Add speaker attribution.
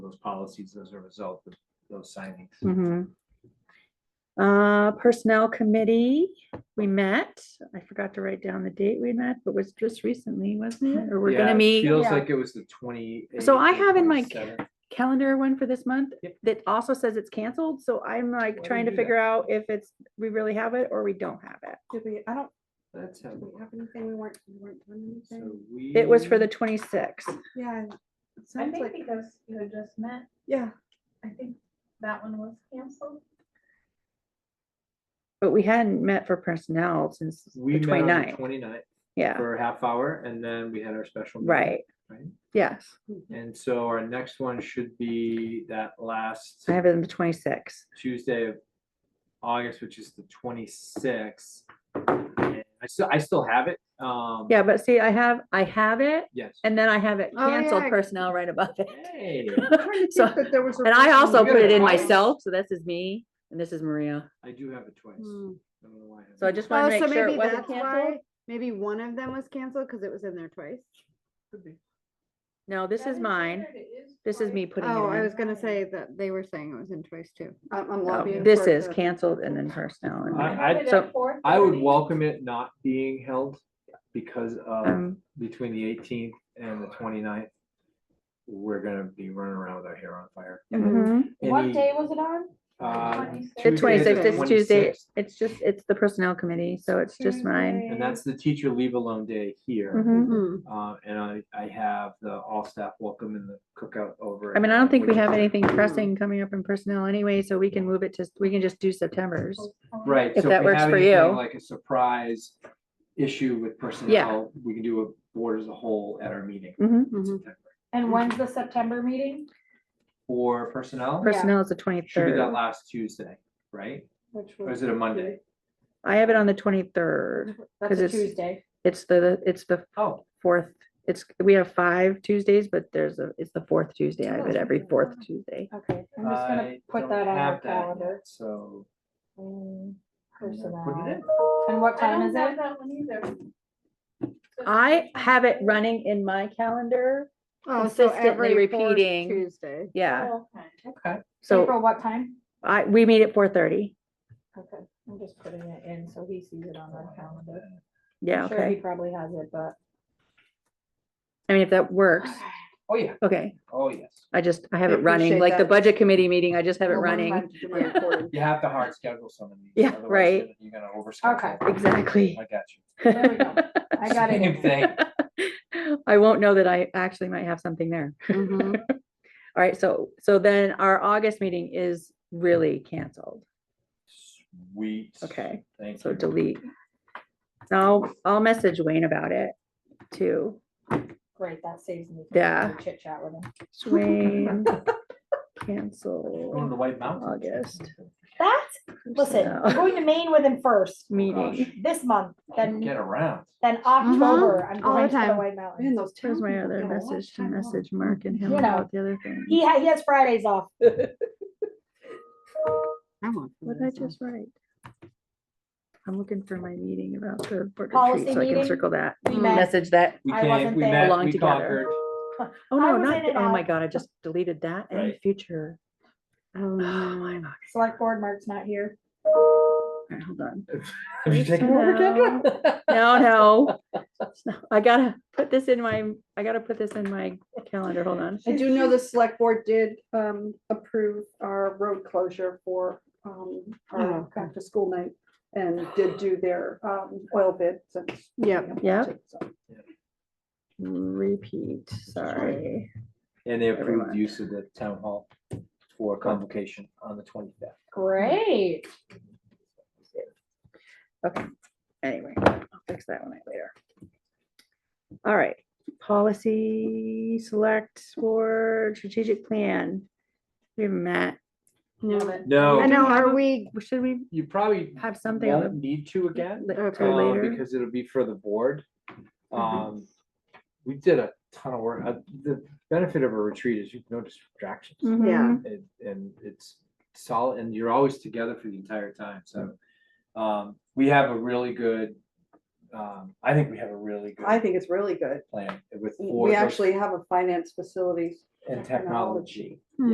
Speaker 1: those policies as a result of those signings.
Speaker 2: Mhm. Uh, Personnel Committee, we met. I forgot to write down the date we met, but was just recently, wasn't it? Or we're
Speaker 1: Yeah,
Speaker 2: gonna
Speaker 1: it
Speaker 2: meet.
Speaker 1: Feels
Speaker 2: Yeah.
Speaker 1: like it was the twenty.
Speaker 2: So I have in my calendar one for this month that also says it's canceled, so I'm like
Speaker 1: Why
Speaker 2: trying
Speaker 1: do
Speaker 2: to
Speaker 1: that?
Speaker 2: figure out if it's, we really have it or we don't have it.
Speaker 3: Did we, I don't,
Speaker 1: That's how.
Speaker 3: did we have anything, we weren't, we weren't doing
Speaker 1: so
Speaker 3: anything?
Speaker 1: we-
Speaker 2: It was for the twenty-sixth.
Speaker 3: Yeah, it
Speaker 4: I
Speaker 3: sounds
Speaker 4: think
Speaker 3: like,
Speaker 4: because you had just met,
Speaker 3: yeah,
Speaker 4: I think that one was canceled.
Speaker 2: But we hadn't met for personnel since
Speaker 1: We met
Speaker 2: the
Speaker 1: on the
Speaker 2: 29th.
Speaker 1: 29th
Speaker 2: Yeah,
Speaker 1: for a half hour and then we had our special. meeting,
Speaker 2: right.
Speaker 1: Right.
Speaker 2: Yes,
Speaker 1: And so our next one should be that last
Speaker 2: I have it on the twenty-sixth.
Speaker 1: Tuesday of August, which is the twenty-sixth. I still, I still have it. Um.
Speaker 2: Yeah, but see, I have, I have it
Speaker 1: Yes.
Speaker 2: and then I have it
Speaker 3: Oh,
Speaker 2: canceled
Speaker 3: yeah.
Speaker 2: personnel right above it.
Speaker 1: Hey,
Speaker 3: I'm trying to
Speaker 2: So-
Speaker 3: think that there was. a
Speaker 2: And I
Speaker 3: reason
Speaker 2: also
Speaker 3: we
Speaker 2: put it
Speaker 3: did
Speaker 2: in
Speaker 3: twice.
Speaker 2: myself, so this is me and this is Maria.
Speaker 1: I do have it twice. I
Speaker 3: Hmm.
Speaker 1: don't know why I have
Speaker 2: So I
Speaker 1: it.
Speaker 2: just
Speaker 3: Oh,
Speaker 2: wanted to
Speaker 3: so
Speaker 2: make sure it
Speaker 3: maybe
Speaker 2: wasn't
Speaker 3: that's why,
Speaker 2: canceled.
Speaker 3: maybe one of them was canceled because it was in there twice.
Speaker 1: Could be.
Speaker 2: No, this is mine. This is me putting it
Speaker 3: Oh, I
Speaker 2: in.
Speaker 3: was gonna say that they were saying it was in twice too. I'm, I'm
Speaker 2: No,
Speaker 3: lobbying.
Speaker 2: This
Speaker 3: for it
Speaker 2: is
Speaker 3: to-
Speaker 2: canceled and then personnel. and
Speaker 1: I-
Speaker 2: then-
Speaker 1: I'd-
Speaker 2: so-
Speaker 1: I would welcome it not being held because of
Speaker 2: um,
Speaker 1: between the eighteenth and the 29th. We're gonna be running around with our hair on fire.
Speaker 3: Mhm.
Speaker 2: mhm.
Speaker 4: What
Speaker 1: Any,
Speaker 4: day was it on?
Speaker 1: uh,
Speaker 4: 26th.
Speaker 2: The
Speaker 1: Tuesday,
Speaker 2: twenty-sixth
Speaker 1: the
Speaker 2: is Tuesday.
Speaker 1: 26th,
Speaker 2: It's just, it's the personnel committee, so it's just mine.
Speaker 1: And that's the teacher leave alone day here.
Speaker 2: Mhm.
Speaker 3: Mhm.
Speaker 1: Uh, and I, I have the all staff welcome and the cookout over.
Speaker 2: I mean, I
Speaker 1: at
Speaker 2: don't think we have
Speaker 1: Woodward.
Speaker 2: anything pressing coming up in personnel anyway, so we can move it to, we can just do September's.
Speaker 1: Right.
Speaker 2: if
Speaker 1: so
Speaker 2: that
Speaker 1: we
Speaker 2: works
Speaker 1: have
Speaker 2: for
Speaker 1: anything
Speaker 2: you.
Speaker 1: Like a surprise issue with personnel, we can do a board as a whole at our meeting.
Speaker 2: Mhm.
Speaker 1: in
Speaker 3: Mhm.
Speaker 1: September.
Speaker 4: And when's the September meeting?
Speaker 1: For personnel,
Speaker 2: Personnel is the
Speaker 1: should be that
Speaker 2: twenty-third.
Speaker 1: last Tuesday, right?
Speaker 3: Which
Speaker 1: Or
Speaker 3: was-
Speaker 1: is it a Monday?
Speaker 2: I have it on the twenty-third.
Speaker 4: That's
Speaker 2: 'Cause
Speaker 4: a
Speaker 2: it's-
Speaker 4: Tuesday.
Speaker 2: It's the, it's the
Speaker 1: Oh,
Speaker 2: fourth, it's, we have five Tuesdays, but there's a, it's the fourth Tuesday. I have it every fourth Tuesday.
Speaker 4: Okay, I'm just gonna
Speaker 1: I
Speaker 4: put
Speaker 1: don't
Speaker 4: that on our
Speaker 1: have that
Speaker 4: calendar.
Speaker 1: yet, so.
Speaker 4: Mm,
Speaker 1: I'm gonna
Speaker 4: Personnel.
Speaker 1: Put it in.
Speaker 4: And what time is it?
Speaker 5: that one either.
Speaker 2: I have it running in my calendar.
Speaker 3: Oh, so
Speaker 2: consistently
Speaker 3: every fourth
Speaker 2: repeating.
Speaker 3: Tuesday.
Speaker 2: Yeah,
Speaker 4: Oh, okay.
Speaker 1: Okay.
Speaker 2: uh, so
Speaker 4: April, what time?
Speaker 2: I, we meet at four thirty.
Speaker 4: Okay, I'm just putting it in so he sees it on our calendar.
Speaker 2: Yeah,
Speaker 4: I'm sure He
Speaker 2: okay.
Speaker 4: probably has it, but.
Speaker 2: I mean, if that works,
Speaker 1: Oh, yeah.
Speaker 2: okay.
Speaker 1: Oh, yes.
Speaker 2: I just, I have
Speaker 3: I
Speaker 2: it running,
Speaker 3: appreciate
Speaker 2: like the
Speaker 3: that.
Speaker 2: budget committee meeting, I just have it
Speaker 3: Well, one
Speaker 2: running.
Speaker 3: month to my recording.
Speaker 1: You have to hard schedule some of these.
Speaker 2: Yeah,
Speaker 1: otherwise
Speaker 2: right.
Speaker 1: you're- You're gonna overschedule.
Speaker 4: Okay.
Speaker 2: Exactly.
Speaker 1: I got you.
Speaker 4: There we go. I got it.
Speaker 1: Same thing.
Speaker 2: I won't know that I actually might have something there.
Speaker 3: Mhm.
Speaker 2: All right, so, so then our August meeting is really canceled.
Speaker 1: Sweet.
Speaker 2: Okay,
Speaker 1: Thank you.
Speaker 2: so delete. So I'll, I'll message Wayne about it too.
Speaker 4: Great, that saves me.
Speaker 2: Yeah.
Speaker 4: Chit chat with him.
Speaker 2: Wayne,
Speaker 1: Going to
Speaker 2: cancel
Speaker 1: the White Mountains.
Speaker 2: August
Speaker 4: That's, listen, Oh, I'm going to Maine with him first,
Speaker 2: meeting.
Speaker 4: this month, then,
Speaker 1: Get around.
Speaker 4: then October, I'm
Speaker 3: Uh-huh. All the
Speaker 4: going to the
Speaker 3: time.
Speaker 4: White
Speaker 3: Man,
Speaker 4: Mountains.
Speaker 3: those
Speaker 2: Here's
Speaker 3: towns
Speaker 2: my
Speaker 3: people
Speaker 2: other
Speaker 3: get a lot of
Speaker 2: message to
Speaker 3: time off.
Speaker 2: message Mark and him
Speaker 4: You know,
Speaker 2: about the other thing.
Speaker 4: He ha- he has Fridays off.
Speaker 3: I want
Speaker 2: What
Speaker 3: to
Speaker 2: did I
Speaker 3: listen.
Speaker 2: just write? I'm looking for my meeting about the board
Speaker 4: Policy
Speaker 2: retreat, so I can
Speaker 4: meeting?
Speaker 2: circle that,
Speaker 4: We
Speaker 3: Mm.
Speaker 4: met,
Speaker 2: message that.
Speaker 1: We
Speaker 4: I
Speaker 1: came,
Speaker 4: wasn't
Speaker 1: we
Speaker 4: there.
Speaker 1: met,
Speaker 2: Belong
Speaker 1: we
Speaker 2: together.
Speaker 1: conquered.
Speaker 2: Oh, no,
Speaker 4: I was in
Speaker 2: not,
Speaker 4: and
Speaker 2: oh my
Speaker 4: out.
Speaker 2: God, I just deleted that in
Speaker 1: Right.
Speaker 2: future.
Speaker 3: Oh,
Speaker 2: Oh,
Speaker 3: no.
Speaker 2: my God.
Speaker 4: select board, Mark's not here.
Speaker 2: Alright, Hold on.
Speaker 1: Have you taken over,
Speaker 2: No,
Speaker 1: Kendra?
Speaker 2: No, no. No, I gotta put this in my, I gotta put this in my calendar, hold on.
Speaker 3: I do know the select board did um approve our road closure for um our back to school night. And did do their um oil bid since. Yeah.
Speaker 2: Yep. Repeat, sorry.
Speaker 1: And they approved
Speaker 2: Everyone.
Speaker 1: use of the town hall for convocation on the twenty-fifth.
Speaker 4: Great.
Speaker 2: Anyway, I'll fix that one later. All right, policy, select board, strategic plan. We haven't met.
Speaker 3: I
Speaker 1: No,
Speaker 3: know, are we,
Speaker 2: Should we
Speaker 1: you probably
Speaker 2: have something on
Speaker 1: won't
Speaker 2: the-
Speaker 1: need to again,
Speaker 2: li-
Speaker 3: Okay.
Speaker 2: till
Speaker 1: uh,
Speaker 2: later?
Speaker 1: because it'll be for the board.
Speaker 3: Mm-hmm.
Speaker 1: Um, we did a ton of work. Uh, The benefit of a retreat is you've no distractions.
Speaker 3: Mm-hmm.
Speaker 2: Mhm.
Speaker 1: and, and it's solid, and
Speaker 3: Mm-hmm.
Speaker 1: you're always together for the entire time, so. Um, we have a really good um, I think we have a really
Speaker 3: I
Speaker 1: good
Speaker 3: think it's really good.
Speaker 1: plan with
Speaker 3: We
Speaker 1: Ford
Speaker 3: actually have a finance facilities
Speaker 1: and
Speaker 3: technology.
Speaker 1: technology.